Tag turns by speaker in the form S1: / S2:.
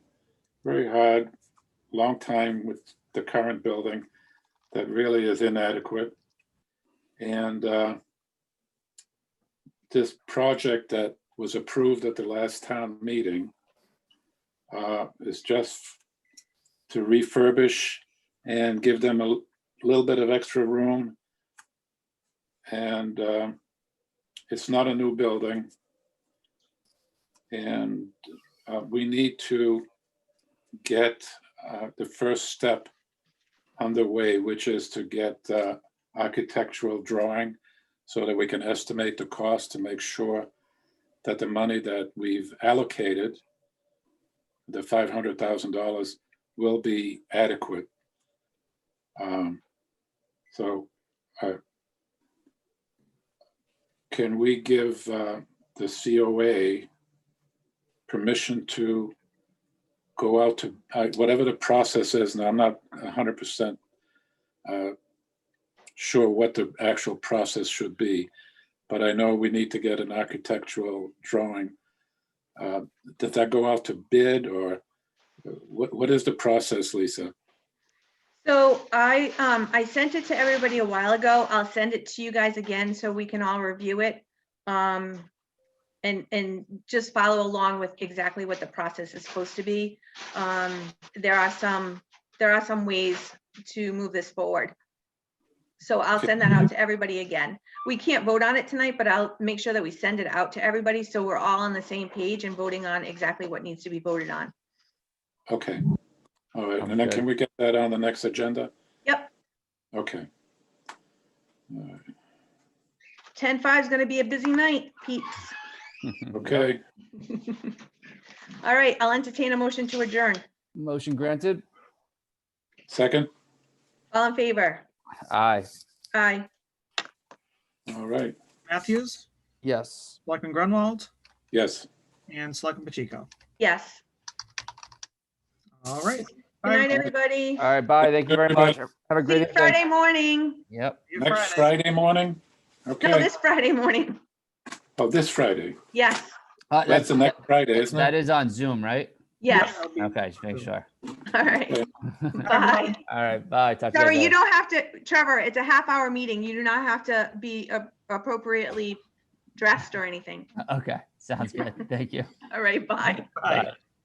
S1: very hard, long time with the current building that really is inadequate. And uh, this project that was approved at the last town meeting uh, is just to refurbish and give them a little bit of extra room. And um, it's not a new building. And uh, we need to get uh, the first step underway, which is to get uh, architectural drawing so that we can estimate the cost to make sure that the money that we've allocated, the $500,000, will be adequate. Um, So uh, can we give uh, the COA permission to go out to, uh, whatever the process is, and I'm not 100% uh, sure what the actual process should be, but I know we need to get an architectural drawing. Uh, Does that go out to bid or uh, what, what is the process, Lisa?
S2: So I, um, I sent it to everybody a while ago. I'll send it to you guys again so we can all review it. Um, and, and just follow along with exactly what the process is supposed to be. Um, there are some, there are some ways to move this forward. So I'll
S1: Okay.
S2: send that out to everybody again. We can't vote on it tonight, but I'll make sure that we send it out to everybody so we're all on the same page and voting on exactly what needs to be voted on.
S1: Okay. All right, and then
S3: Okay.
S1: can we get that on the next agenda?
S2: Yep.
S1: Okay. All right.
S2: Ten five is gonna be a busy night, peeps.
S1: Okay,
S2: All right, I'll entertain a motion to adjourn.
S3: Motion granted.
S1: second?
S2: All in favor?
S3: Aye.
S2: Aye.
S1: All right,
S4: Matthews,
S3: Yes.
S4: Selectman Grunwald,
S1: yes.
S4: and Selectman Pacheco.
S2: Yes.
S4: All right.
S2: Good
S4: Bye.
S2: night, everybody.
S3: All right. Bye. Thank you very much. Have a
S2: See you
S3: great day.
S2: Friday morning.
S3: Yep.
S4: See you
S1: Next Friday morning?
S2: No,
S1: Okay,
S2: this Friday morning.
S1: oh, this Friday.
S2: Yes,
S3: Uh,
S1: That's the next Friday, isn't
S3: That
S1: it?
S3: is on Zoom, right?
S2: yes.
S4: Yeah, I'll be-
S3: Okay, just make sure.
S2: All right. Bye.
S3: All right. Bye. Talk to
S2: Trevor, you
S3: later.
S2: don't have to, Trevor, it's a half hour meeting. You do not have to be uh, appropriately dressed or anything.
S3: Okay. Sounds good. Thank you.
S2: All right, bye.
S4: Bye.
S3: Bye.